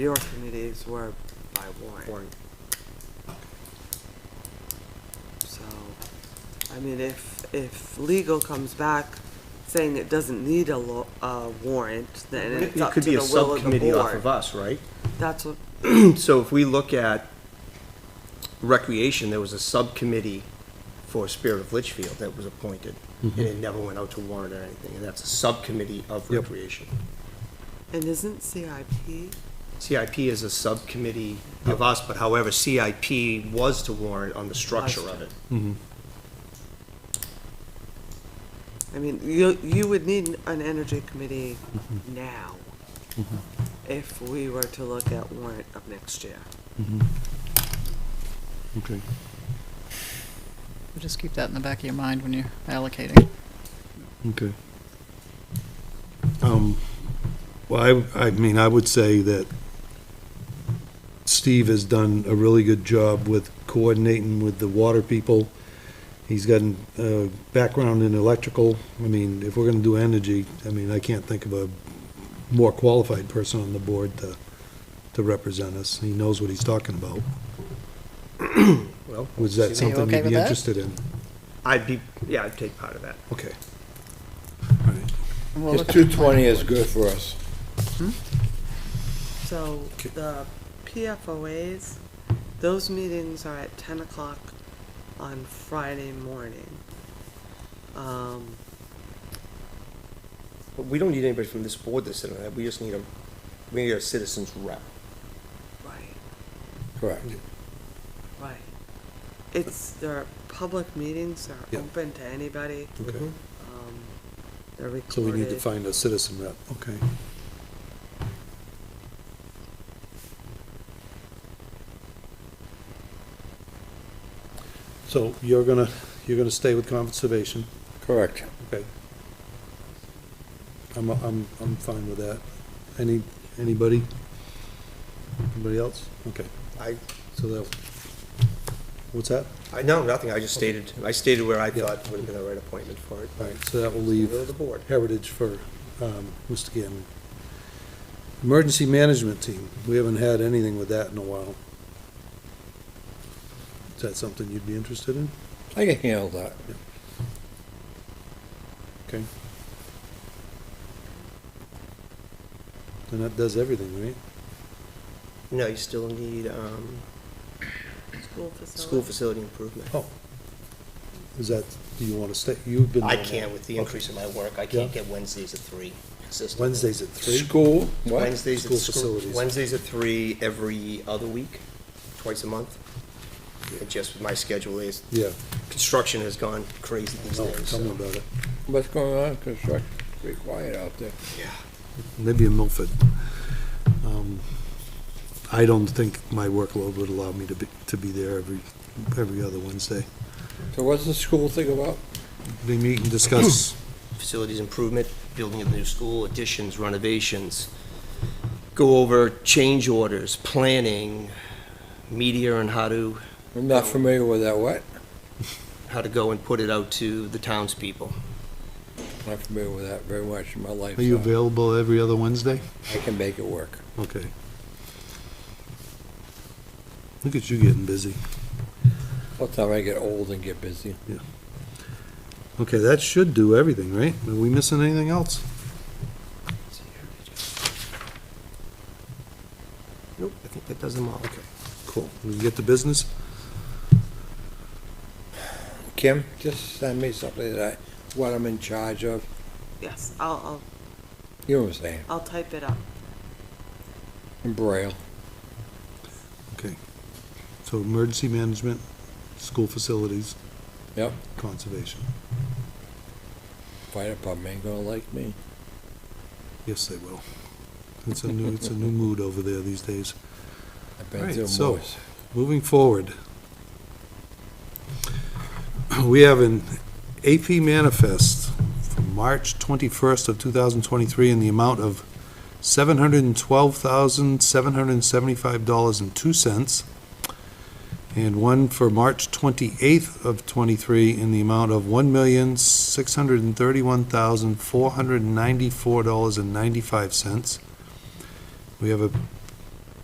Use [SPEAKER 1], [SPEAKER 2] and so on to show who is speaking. [SPEAKER 1] Your committees were by warrant,
[SPEAKER 2] warrant.
[SPEAKER 1] so, I mean, if, if legal comes back saying it doesn't need a lo- a warrant, then
[SPEAKER 2] It
[SPEAKER 1] it's
[SPEAKER 2] it
[SPEAKER 1] up
[SPEAKER 2] could
[SPEAKER 1] to
[SPEAKER 2] be
[SPEAKER 1] the
[SPEAKER 2] a
[SPEAKER 1] will of the
[SPEAKER 2] subcommittee off of
[SPEAKER 1] board.
[SPEAKER 2] us, right?
[SPEAKER 1] That's what,
[SPEAKER 2] So if we look at recreation, there was a subcommittee for Spirit of Litchfield that was appointed, and
[SPEAKER 3] Mm-hmm.
[SPEAKER 2] it never went out to warrant or anything, and that's a subcommittee of
[SPEAKER 3] Yep.
[SPEAKER 2] recreation.
[SPEAKER 1] and isn't CIP,
[SPEAKER 2] CIP is a subcommittee of us, but however, CIP was to warrant on the structure of it.
[SPEAKER 3] Mm-hmm.
[SPEAKER 1] I mean, you, you would need an energy committee
[SPEAKER 2] Mm-hmm.
[SPEAKER 1] now if we were to look at warrant of next year.
[SPEAKER 3] Mm-hmm. Okay.
[SPEAKER 4] Just keep that in the back of your mind when you're allocating.
[SPEAKER 3] Okay. Um, Well, I, I mean, I would say that Steve has done a really good job with coordinating with the water people. He's got a background in electrical. I mean, if we're gonna do energy, I mean, I can't think of a more qualified person on the board to, to represent us. He knows what he's talking about.
[SPEAKER 2] Well,
[SPEAKER 3] Was that
[SPEAKER 4] Are you
[SPEAKER 3] something
[SPEAKER 4] okay
[SPEAKER 3] you'd
[SPEAKER 4] with
[SPEAKER 3] be
[SPEAKER 4] that?
[SPEAKER 3] interested in?
[SPEAKER 2] I'd be, yeah, I'd take part of that.
[SPEAKER 3] Okay. All right.
[SPEAKER 4] And we'll
[SPEAKER 5] This
[SPEAKER 4] look at the
[SPEAKER 5] 220
[SPEAKER 4] plan.
[SPEAKER 5] is good for us.
[SPEAKER 1] So the PFOAs, those meetings are at ten o'clock on Friday morning. Um,
[SPEAKER 2] But we don't need anybody from this board to sit on that, we just need a, we need a citizens rep.
[SPEAKER 1] right,
[SPEAKER 5] Correct.
[SPEAKER 1] right. It's, they're public meetings, they're
[SPEAKER 3] Yeah.
[SPEAKER 1] open to anybody,
[SPEAKER 3] Okay.
[SPEAKER 1] um, they're
[SPEAKER 3] So
[SPEAKER 1] recorded.
[SPEAKER 3] we need to find a citizen rep, okay. So you're gonna, you're gonna stay with conservation,
[SPEAKER 5] Correct.
[SPEAKER 3] okay? I'm, I'm, I'm fine with that. Any, anybody? Anybody else? Okay,
[SPEAKER 2] I,
[SPEAKER 3] so that, what's that?
[SPEAKER 2] I, no, nothing, I just stated, I stated where I
[SPEAKER 3] Yeah.
[SPEAKER 2] thought would have been the right appointment for it.
[SPEAKER 3] All right, so that will leave.
[SPEAKER 2] Will of the board.
[SPEAKER 3] Heritage for um, Mr. Gannon. Emergency Management Team, we haven't had anything with that in a while. Is that something you'd be interested in?
[SPEAKER 5] I can handle that.
[SPEAKER 3] Okay. Then that does everything, right?
[SPEAKER 2] No, you still need, um,
[SPEAKER 1] School facility.
[SPEAKER 2] school facility improvement.
[SPEAKER 3] Oh. Is that, do you want to stay, you've been.
[SPEAKER 2] I
[SPEAKER 3] on that.
[SPEAKER 2] can't with the
[SPEAKER 3] Okay.
[SPEAKER 2] increase in my work, I can't
[SPEAKER 3] Yeah.
[SPEAKER 2] get Wednesdays at three consistently.
[SPEAKER 3] Wednesdays at three?
[SPEAKER 5] School, what?
[SPEAKER 2] Wednesdays at
[SPEAKER 3] School
[SPEAKER 2] school,
[SPEAKER 3] facilities.
[SPEAKER 2] Wednesdays at three every other week, twice a month. It just, my schedule is,
[SPEAKER 3] Yeah,
[SPEAKER 2] construction has gone crazy these
[SPEAKER 3] no,
[SPEAKER 2] days,
[SPEAKER 3] tell me
[SPEAKER 2] so.
[SPEAKER 3] about it.
[SPEAKER 5] What's going on in construction? Pretty quiet out there.
[SPEAKER 3] Maybe in Milford. Um, I don't think my workload would allow me to be, to be there every, every other Wednesday.
[SPEAKER 5] So what's the school thing about?
[SPEAKER 3] They meet and discuss,
[SPEAKER 2] Facilities improvement, building of the new school, additions, renovations. Go over change orders, planning, media and how to,
[SPEAKER 5] I'm not familiar with that, what?
[SPEAKER 2] how to go and put it out to the townspeople.
[SPEAKER 5] Not familiar with that very much in my life.
[SPEAKER 3] are you
[SPEAKER 5] so
[SPEAKER 3] available every other Wednesday?
[SPEAKER 5] I can make it work.
[SPEAKER 3] Okay. Look at you getting busy.
[SPEAKER 5] By the time I get old and get busy.
[SPEAKER 3] Okay, that should do everything, right? Are we missing anything else?
[SPEAKER 2] Nope, I think that does them all. Okay.
[SPEAKER 3] Cool. We can get to business?
[SPEAKER 5] Kim, just send me something that I, what I'm in charge of.
[SPEAKER 1] Yes, I'll,
[SPEAKER 5] You know what I'm saying?
[SPEAKER 1] I'll, I'll type it up.
[SPEAKER 5] In Braille.
[SPEAKER 3] Okay. So emergency management, school facilities,
[SPEAKER 5] Yep.
[SPEAKER 3] conservation.
[SPEAKER 5] Fire department ain't gonna like me.
[SPEAKER 3] Yes, they will. It's a new, it's a new mood over there these days.
[SPEAKER 5] I've
[SPEAKER 3] Right,
[SPEAKER 5] been through
[SPEAKER 3] so-
[SPEAKER 5] worse.
[SPEAKER 3] Moving forward, we have an AP manifest from March 21st of 2023 in the amount of $712,775.02, and one for March 28th of '23 in the amount of $1,631,494.95. We have a